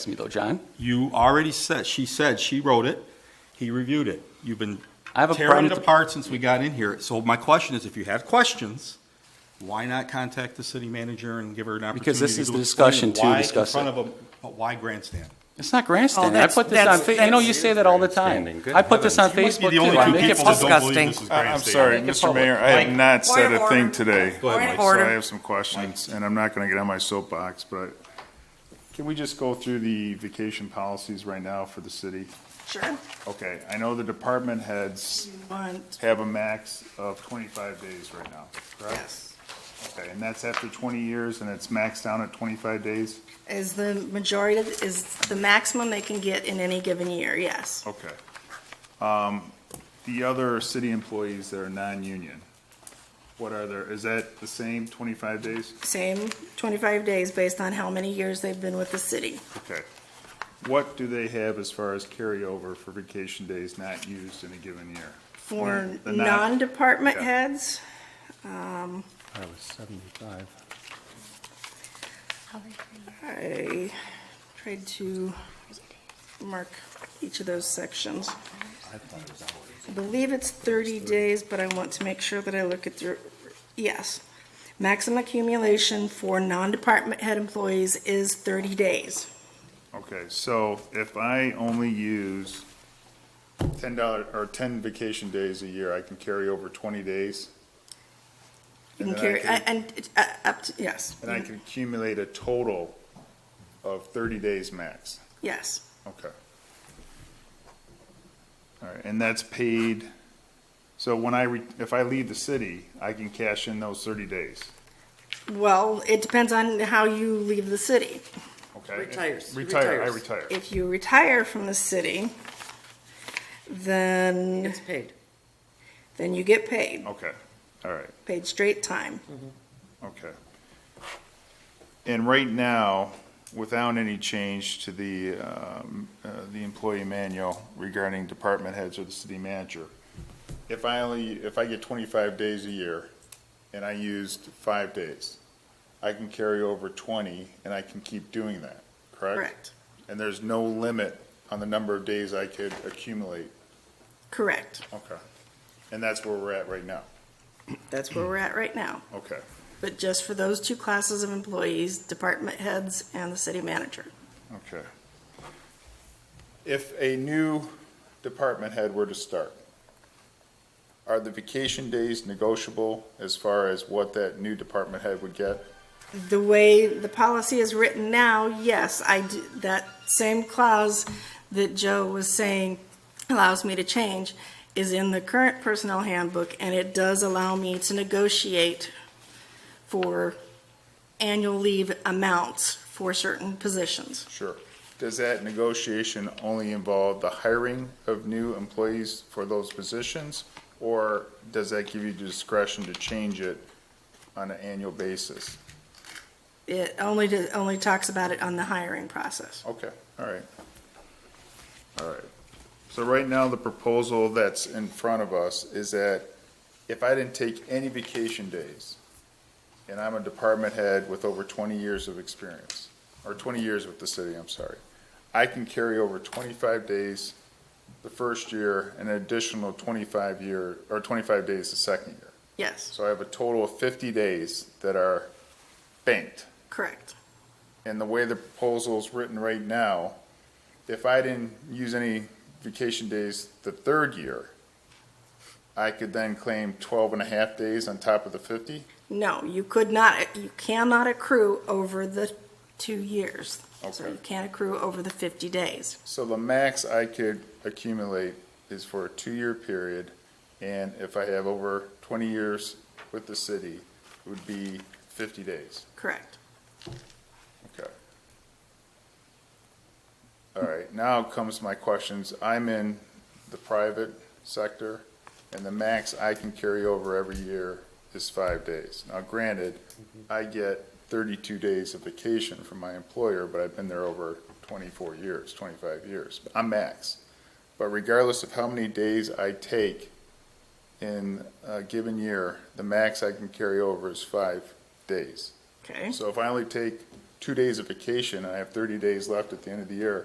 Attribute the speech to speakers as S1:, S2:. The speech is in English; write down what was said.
S1: to me though, John.
S2: You already said, she said, she wrote it, he reviewed it. You've been
S1: I have a
S2: tearing
S1: problem.
S2: it
S1: with the-
S2: apart since we got in here. So my question is, if you have questions, why not contact the city manager and give her an opportunity?
S1: Because this is
S2: to
S1: the
S2: explain
S1: discussion to
S2: why in
S1: discuss
S2: front of a- But why grandstand?
S1: It's not grandstanding. I
S3: that's-
S1: put this on,
S3: that's-
S1: Fa- I know you say that all the time.
S4: Oh, Grandstanding. Good
S1: I put this on
S4: heavens.
S2: You might
S1: Facebook
S2: be the
S1: too.
S2: only
S1: I
S2: two
S1: make it
S2: people that
S1: public.
S2: don't believe
S3: disgusting.
S2: this is
S5: I- Uh, I'm
S2: grandstanding.
S5: sorry,
S1: Make it
S5: Mr.
S1: public.
S5: Mayor, I
S2: Mike.
S5: have not
S3: Point
S5: said
S3: of
S5: a thing
S3: order.
S5: today.
S2: Go ahead,
S3: Point of
S2: Mike.
S3: order.
S5: So I have some questions, and I'm not gonna get on my soapbox, but can we just go through the vacation policies right now for the city?
S3: Sure.
S5: Okay, I know the department heads have a max of twenty-five days right now, correct? Okay, and that's after twenty years, and it's maxed down at twenty-five days?
S3: Is the majority, of- is the maximum they can get in any given year, yes.
S5: Okay. Um, the other city employees that are non-union, what are their, is that the same twenty-five days?
S3: Same 25 days based on how many years they've been with the city.
S5: Okay. What do they have as far as carryover for vacation days not used in a given year?
S3: For
S5: The non-
S3: non-department
S5: Yeah.
S3: heads, Um,
S4: I was 75.
S3: I tried to mark each of those sections. I believe it's 30 days, but I want to make sure that I look at the, yes. Maximum accumulation for non-department head employees is 30 days.
S5: Okay, so if I only use ten dollar, or ten vacation days a year, I can carry over twenty days?
S3: You
S5: And
S3: can
S5: then I
S3: carry,
S5: can-
S3: and, uh, up to, yes,
S5: And I can accumulate a total of thirty days max?
S3: yes.
S5: Okay. All right, and that's paid, so when I, re- if I leave the city, I can cash in those thirty days,
S3: Well, it depends on how you leave the city.
S5: okay?
S6: Retires,
S5: Retire, I
S6: retires.
S5: retire.
S3: If you retire from the city, then,
S6: It's paid.
S3: then you get paid,
S5: Okay, all right,
S3: paid straight time.
S5: okay. And right now, without any change to the, um, uh, the employee manual regarding department heads or the city manager, if I only, if I get twenty-five days a year and I used five days, I can carry over twenty and I can keep doing that, correct?
S3: Correct,
S5: And there's no limit on the number of days I could accumulate,
S3: correct.
S5: okay? And that's where we're at right now,
S3: That's where we're at right now.
S5: okay?
S3: But just for those two classes of employees, department heads and the city manager.
S5: Okay. If a new department head were to start, are the vacation days negotiable as far as what that new department head would get?
S3: The way the policy is written now, yes, I, d- that same clause that Joe was saying allows me to change is in the current personnel handbook, and it does allow me to negotiate for annual leave amounts for certain positions.
S5: Sure. Does that negotiation only involve the hiring of new employees for those positions? Or does that give you discretion to change it on an annual basis?
S3: It only, d- only talks about it on the hiring process.
S5: Okay, all right. All right. So right now, the proposal that's in front of us is that if I didn't take any vacation days, and I'm a department head with over twenty years of experience, or twenty years with the city, I'm sorry, I can carry over twenty-five days the first year, and an additional twenty-five year, or twenty-five days the second year.
S3: Yes,
S5: So I have a total of fifty days that are banked.
S3: correct.
S5: And the way the proposal's written right now, if I didn't use any vacation days the third year, I could then claim 12 and a half days on top of the 50?
S3: No, you could not, you cannot accrue over the two years. So you
S5: Okay.
S3: can't accrue over the 50 days.
S5: So the max I could accumulate is for a two-year period, and if I have over 20 years with the city, it would be 50 days.
S3: Correct.
S5: Okay. All right, now comes my questions. I'm in the private sector, and the max I can carry over every year is five days. Now granted, I get thirty-two days of vacation from my employer, but I've been there over twenty-four years, twenty-five years. I'm max. But regardless of how many days I take in a given year, the max I can carry over is five days.
S3: Okay,
S5: So if I only take two days of vacation, and I have thirty days left at the end of the year,